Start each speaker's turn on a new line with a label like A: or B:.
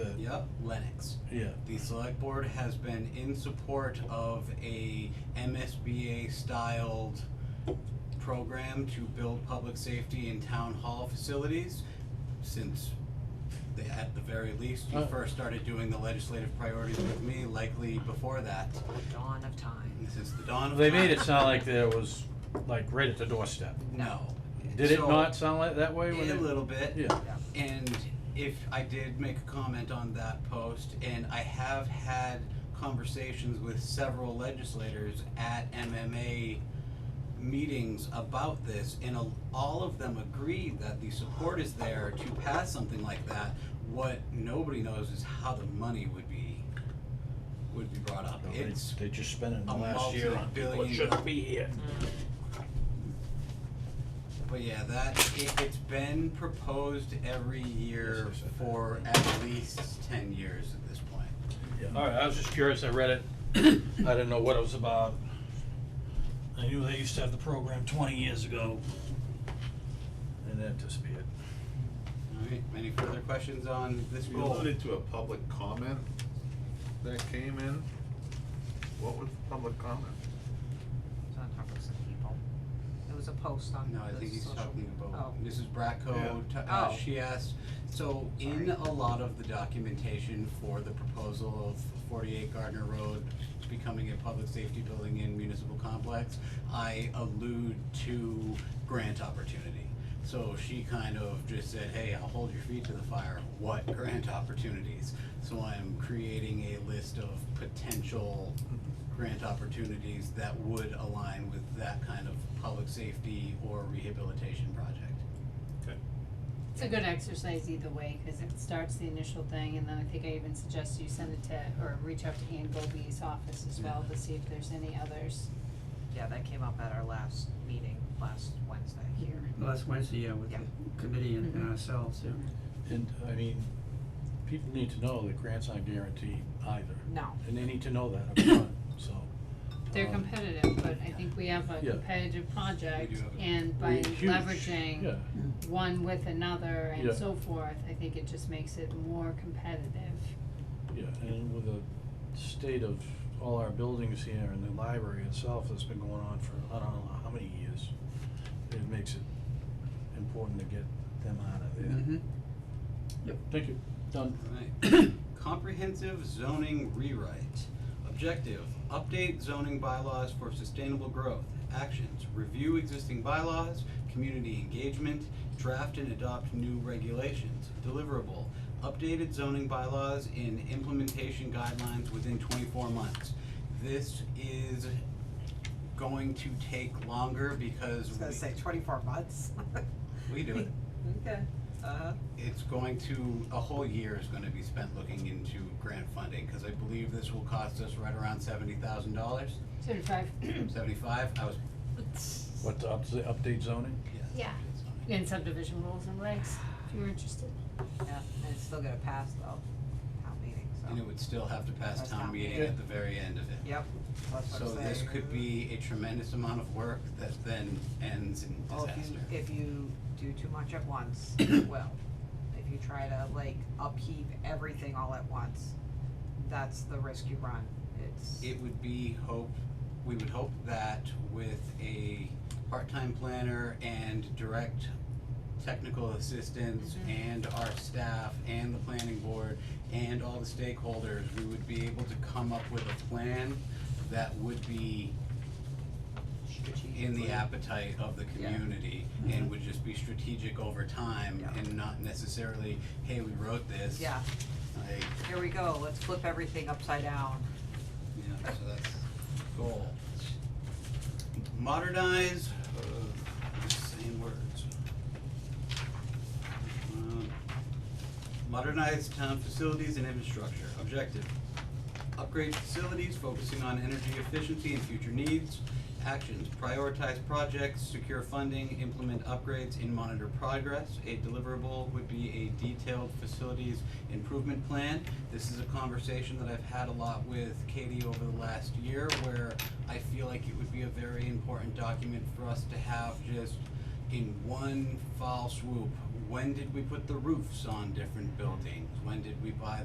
A: up Lennox.
B: Yeah.
A: The select board has been in support of a MSBA styled program to build public safety in town hall facilities since the, at the very least, you
B: Uh.
A: first started doing the legislative priorities with me, likely before that,
C: Dawn of time.
A: since the dawn of
B: They
A: time.
B: made it sound like there was, like, right at the doorstep.
A: No.
B: Did it
A: So-
B: not sound like that way when they?
A: A little bit.
B: Yeah.
A: And if I did make a comment on that post, and I have had conversations with several legislators at MMA meetings about this, and a- all of them agree that the support is there to pass something like that. What nobody knows is how the money would be, would be brought up.
B: No, they-
A: It's
B: They just spent it in the
A: a
B: last year on people that
A: multi-billion
B: shouldn't be here.
C: Mm.
A: But yeah, that, it, it's been proposed every
B: Yes,
A: year
B: yes, yes.
A: for at least ten years at this point.
B: Alright, I was just curious, I read it, I didn't know what it was about.
D: I knew they used to have the program twenty years ago.
B: And that disappeared.
A: Alright, any further questions on this
E: You
A: goal?
E: alluded to a public comment that came in. What was the public comment?
C: It's on top of some people. It was a post on the
A: No,
C: social.
A: I think he's talking about
C: Oh,
A: Mrs. Bracco,
E: Yeah.
A: t- uh,
C: Oh.
A: she asked, so in a lot of the documentation for the proposal of forty-eight Gardner Road becoming a public safety building in municipal complex, I allude to grant opportunity. So she kind of just said, hey, I'll hold your feet to the fire, what grant opportunities? So I'm creating a list of potential grant opportunities that would align with that kind of public safety or rehabilitation project.
F: It's a good exercise either way, cause it starts the initial thing, and then I think I even suggest you send it to, or reach out to Ann Goldby's office as well to see if there's any others.
C: yeah, that came up at our last meeting, last Wednesday here.
G: Last Wednesday, yeah, with the
C: Yeah.
G: committee and and ourselves, yeah.
B: And, I mean, people need to know that grants aren't guaranteed either.
C: No.
B: And they need to know that upfront, so.
F: They're
B: um,
F: competitive, but I think we have a
B: Yeah.
F: competitive project,
A: We do have a-
F: and by
B: huge, Yeah,
F: leveraging one with another
B: Yeah.
F: and so forth, I think it just makes it more competitive.
B: yeah, and with the state of all our buildings here and the library itself that's been going on for, I don't know how many years, it makes it important to get them out of there. Yep, thank you, done.
A: Alright. Comprehensive zoning rewrite. Objective, update zoning bylaws for sustainable growth. Actions, review existing bylaws, community engagement, draft and adopt new regulations. Deliverable, updated zoning bylaws and implementation guidelines within twenty-four months. This is going to take longer because
C: I was gonna say
A: we,
C: twenty-four months.
A: we do it.
C: Okay, uh-huh.
A: it's going to, a whole year is gonna be spent looking into grant funding, cause I believe this will cost us right around seventy thousand dollars,
F: Certified,
A: seventy-five, I was,
B: What, to up- update zoning?
A: yeah.
F: Yeah. and subdivision rules and regs, if you're interested.
C: Yeah, and it's still gonna pass though, town meeting, so.
A: And it would still have to pass
C: That's
A: town
C: not
A: meeting
B: bad.
A: at the very end of it.
C: Yep, that's what
A: So
C: I'm saying.
A: this could be a tremendous amount of work that then ends in
C: Well, Oh, if
A: disaster.
C: you, if you do too much at once, it will. If you try to like upheave everything all at once, that's the risk you run, it's.
A: It would be hope, we would hope that with a part-time planner and direct technical assistance
C: Mm-hmm.
A: and our staff and the planning board and all the stakeholders, we would be able to come up with a plan that would be in the
C: strategically-
A: appetite of the
C: Yeah. Mm-hmm.
A: community and would just be strategic over time
C: Yeah.
A: and not necessarily, hey, we wrote this.
C: Yeah,
A: Like,
C: here we go, let's flip everything upside down.
A: yeah, so that's goal. Modernize, uh, same words. Um, Modernize town facilities and infrastructure, objective. Upgrade facilities focusing on energy efficiency and future needs. Actions, prioritize projects, secure funding, implement upgrades, and monitor progress. A deliverable would be a detailed facilities improvement plan. This is a conversation that I've had a lot with Katie over the last year, where I feel like it would be a very important document for us to have just in one foul swoop. When did we put the roofs on different buildings? When did we buy